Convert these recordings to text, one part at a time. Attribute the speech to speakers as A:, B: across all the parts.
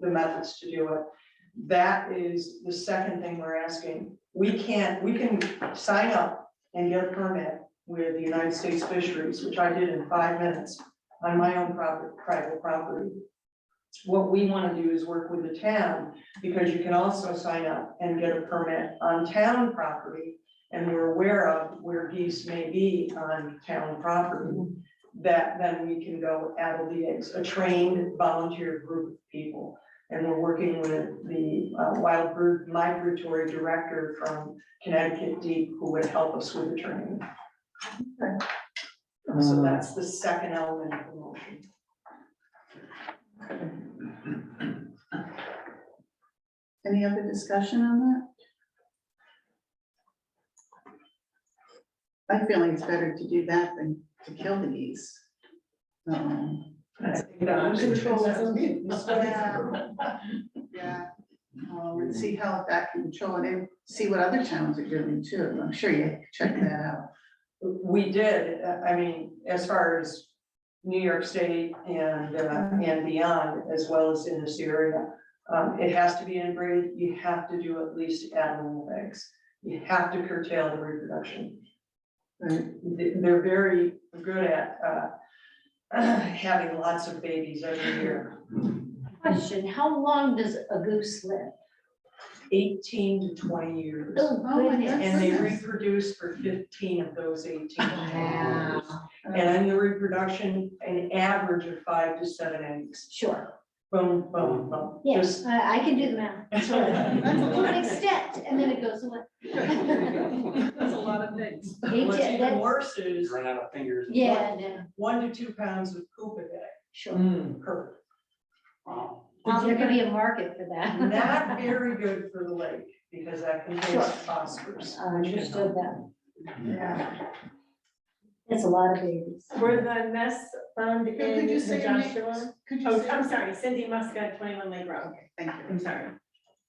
A: the methods to do it. That is the second thing we're asking. We can't, we can sign up and get a permit with the United States Fisheries, which I did in five minutes on my own property, private property. What we want to do is work with the town, because you can also sign up and get a permit on town property. And we're aware of where geese may be on town property that then we can go add the eggs, a trained volunteer group of people. And we're working with the uh, wild bird migratory director from Connecticut Deep, who would help us with the training. So that's the second element of the motion.
B: Any other discussion on that? I feel like it's better to do that than to kill the geese. Um, Yeah, um, and see how that can control it and see what other towns are doing too. I'm sure you check that out.
A: We did, uh, I mean, as far as New York State and, uh,
C: Mm-hmm.
A: and beyond, as well as in this area. Um, it has to be integrated, you have to do at least animal eggs, you have to curtail the reproduction.
B: Right,
A: They- They're very good at, uh, having lots of babies every year,
C: Question, how long does a goose live?
A: eighteen to twenty years.
C: Oh,
B: my
C: goodness.
A: And they
B: goodness.
A: reproduce for fifteen of those eighteen.
C: Wow,
B: Um,
A: And in the reproduction, an average of five to seven eggs.
C: sure,
A: Boom, boom, boom.
C: yes,
A: Just-
C: I, I can do the math.
A: That's all right.
B: That's a
C: To an
B: lot.
C: extent, and then it goes away.
B: That's a lot of things.
C: Eight
A: What's
C: to-
A: even
C: that's-
A: worse is
D: Run out of fingers. and-
C: Yeah, no,
A: one to two pounds of poop a day
C: sure.
A: per.
D: Wow.
C: Um, there could be a market for that.
A: Not very good for the lake because that contains phosphorus.
C: I Understood that.
B: Yeah.
C: That's a lot of babies.
E: Were the nests found in
B: Could you
E: the
B: say your name?
E: Joshua?
B: Could you
E: Oh,
B: say?
E: I'm sorry, Cindy Muscat, twenty-one Lake Road.
B: Okay, Thank you.
E: I'm sorry.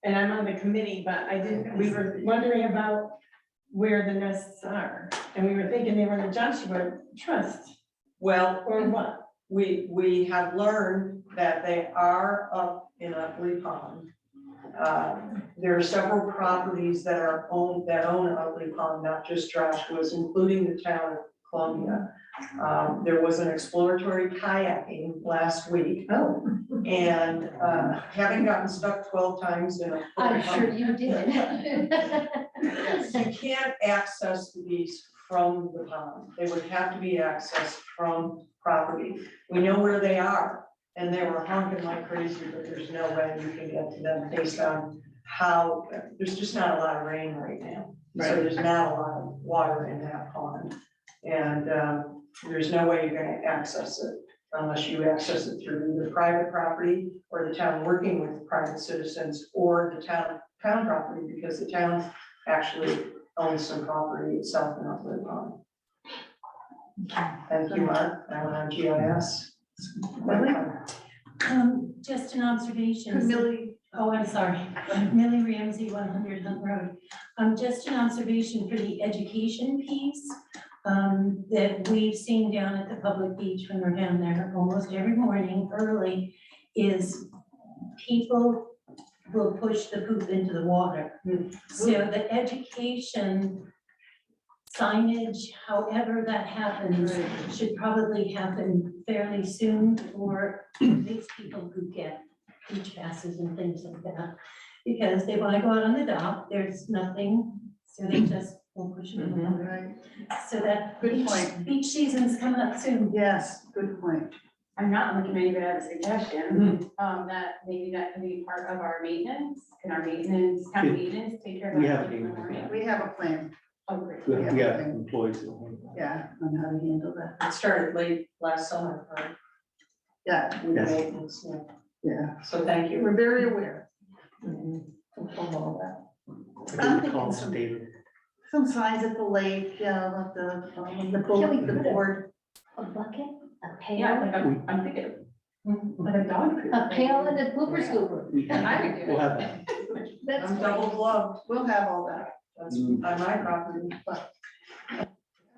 E: And I'm on the committee, but I didn't, we were wondering about where the nests are. And we were thinking they were in the Joshua Trust
A: Well,
E: or what?
A: we, we have learned that they are up in Ugly Pond. Uh, There are several properties that are owned, that own Ugly Pond, not just Joshua's, including the town of Columbia. Um, There was an exploratory kayaking last week
E: Oh.
A: and uh, having gotten stuck twelve times in a.
C: I'm sure you did.
A: You can't access the geese from the pond. They would have to be accessed from property. We know where they are. And they were honking like crazy, but there's no way you can get to them based on how, there's just not a lot of rain right now. So there's not a lot of water in that pond. And um, there's no way you're gonna access it unless you access it through either private property or the town working with private citizens or the town, town property, because the town actually owns some property itself in Upland Pond. Thank you, Mark, I went on GIS.
F: Um, just an observation.
B: Millie,
F: Oh, I'm sorry. Millie Ramsey, one hundred Hunt Road. Um, just an observation for the education piece, um, that we've seen down at the public beach when we're down there almost every morning early, is people will push the poop into the water. So the education signage, however that happens, should probably happen fairly soon for these people who get beach passes and things like that. Because they wanna go out on the dock, there's nothing, so they just will push it in the water.
B: right,
F: So that
B: Good
F: beach,
B: point.
F: beach season's coming up soon.
B: yes, good point.
G: I'm not on the committee, but I have a suggestion, um, that maybe that can be part of our maintenance, can our maintenance, town maintenance take care of?
D: We
G: that
D: have a
G: in the
D: maintenance.
G: morning?
B: We have a plan,
G: Oh, great.
D: We have- we have employees.
B: yeah, on how to handle that.
A: It started late last summer, right?
B: Yeah,
A: with
D: Yes.
A: maintenance, yeah.
B: yeah,
A: So thank you.
B: we're very aware
A: Mhm.
B: of all that.
D: I think we call them David.
B: Some signs at the lake, yeah, of the, um, the boat,
C: Can we
B: the
C: put a-
B: board.
C: A bucket, a
G: Yeah, like
C: pail,
G: I'm, I'm thinking, like a dog. food
C: a
G: thing.
C: pail and a blooper scooper.
D: We have-
G: I would do
D: We'll
G: it.
D: have that.
C: That's
A: I'm double gloved,
B: We'll have all that.
A: that's on my property.
B: Are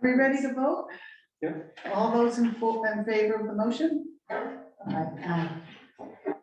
B: we ready to vote?
D: Yeah.
B: All those in full, in favor of the motion? Aye.
C: Aye.